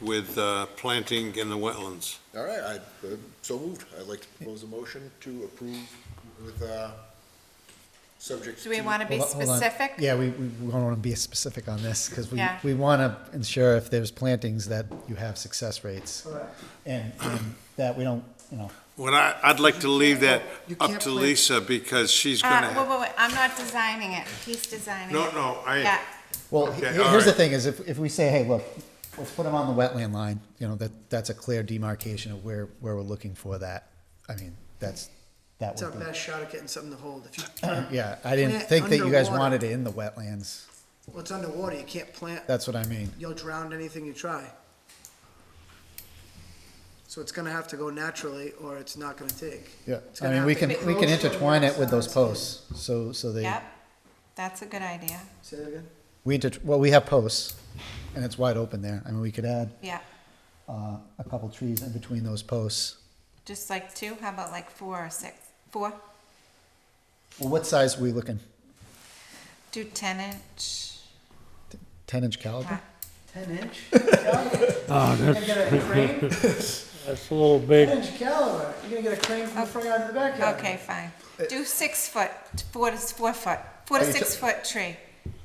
with uh, planting in the wetlands. All right, I, uh, so moved. I'd like to propose a motion to approve with, uh, subject to. Do we want to be Hold on- hold on. specific? Yeah, we, we we don't want to be specific on this because we, Yeah. we want to ensure if there's plantings that you have success rates. And, and that we don't, you know, Well, I, I'd like to leave that You up can't to plant- Lisa because she's Uh, gonna wait, have, wait, wait, I'm not designing it, he's designing no, it. no, I, Yeah, well, he- Okay, here's the alright. thing is if, if we say, hey, look, let's put them on the wetland line, you know, that, that's a clear demarcation of where, where we're looking for that. I mean, that's, that It's our would be, best shot at getting something to hold. If you, yeah, I didn't Plant think that you guys underwater. wanted it in the wetlands. well, it's underwater, you can't plant, That's what I mean. you'll drown anything you try. So it's gonna have to go naturally, or it's not gonna take. Yeah, It's I gonna mean, we have to can, be we can close to the intertwine it with those outside. posts, so, so they, yep, that's a good idea, Say that again? we, inter- well, we have posts, and it's wide open there, I mean, we could add, yeah. uh, a couple trees in between those posts. Just like two, how about like four or six? Four, Well, what size are we looking, do ten inch. ten inch caliber? Ah, Ten inch? Oh, You're Ah, that's, gonna get a crane? that's a little big. Ten inch caliber, you're gonna get a crane from the front yard to the backyard. Okay, fine, do six foot, four to, four foot, four to Uh, Are you six foot tree,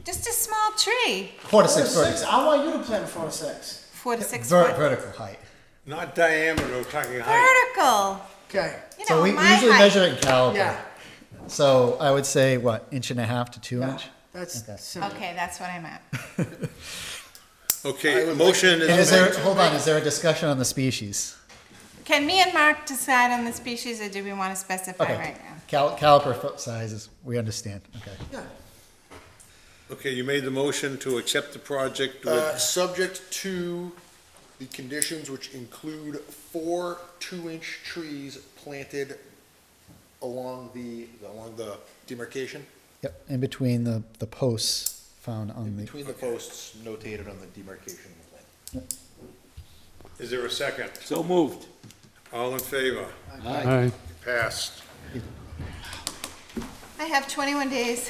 just a small tree, Four to Four to six six, foot. I want you to plant four to six. four to six Ver- foot. Vertical height. not diameter, we're talking height. Vertical, Okay, you So know, we my usually measure height. it in caliber, yeah, so I would say, what, inch and a half to two yeah, inch? Okay. that's simple. Okay, that's what I meant, Okay, motion And is is there, made. hold on, is there a discussion on the species? can me and Mark decide on the species, or do we want to specify Okay, right now? Cal- caliper foot sizes, we understand, okay. Okay, you made the motion to accept the project Uh, with, subject to the conditions which include four two-inch trees planted along the, along the demarcation, Yep, in between the, the posts found on the, between the posts notated on the demarcation plan. is there a second? So moved. All in favor? Aye. Passed. I have 21 days,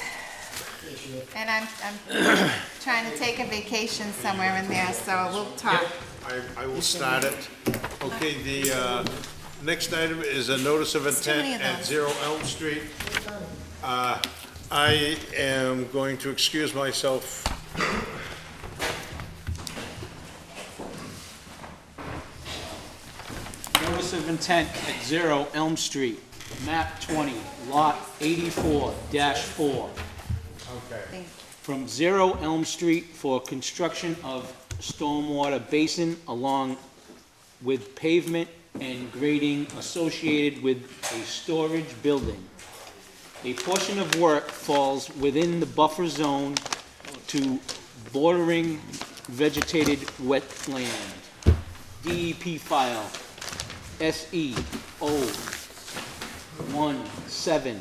and I'm, I'm trying to take a vacation somewhere in there, so we'll talk. I, I will start it. Okay, the, uh, next item is a notice of It's too many intent of at those. Zero Elm Street. Uh, I am going to excuse myself. Notice of intent at Zero Elm Street, map 20, lot 84-4. Thank you. From Zero Elm Street for construction of stormwater basin along with pavement and grading associated with a storage building. A portion of work falls within the buffer zone to bordering vegetated wetland. DEP file E SE 017.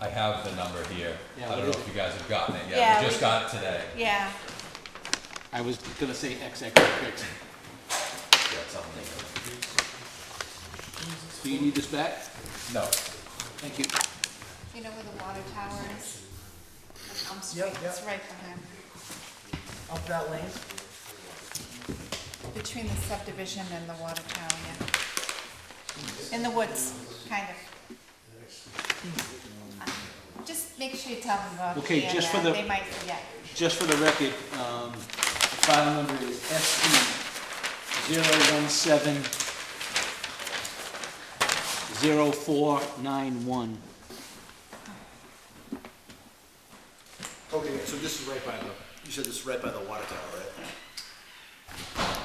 I have the number here. Yeah, I don't know what is if you guys have gotten it Yeah, yet. We we- just got it today. Yeah, I was gonna say XXX. Yeah, it's on there. Do you need this back? No, Thank you. you know where the water tower is? Elm Street, it's right behind, Up that lane? between the subdivision and the water tower, yeah. In the woods, kind of. Just make sure you tell them about the, Okay, just for the- they might forget. Just for the record, um, file number is E SE 017 0491. Okay, so this is right by the, you said this is right by the water tower, right?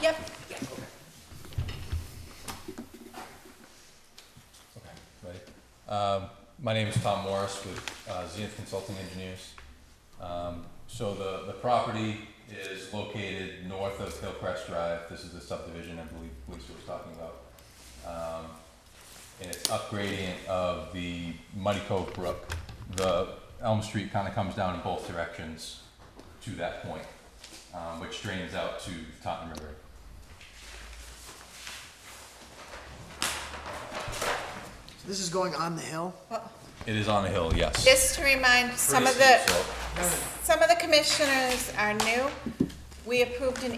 Yep, okay, ready? Um, my name is Tom Morris with, uh, Zenith Consulting Engineers. Um, so the, the property is located north of Hillcrest Drive. This is the subdivision I believe Lisa was talking about. Um, and it's upgrading of the Muddy Cove Brook. The Elm Street kind of comes down in both directions to that point, um, which drains out to Taunton River. This is going on the hill? It is on a hill, yes. just to remind some of Pretty the, steep slope. some of the commissioners are new. We approved an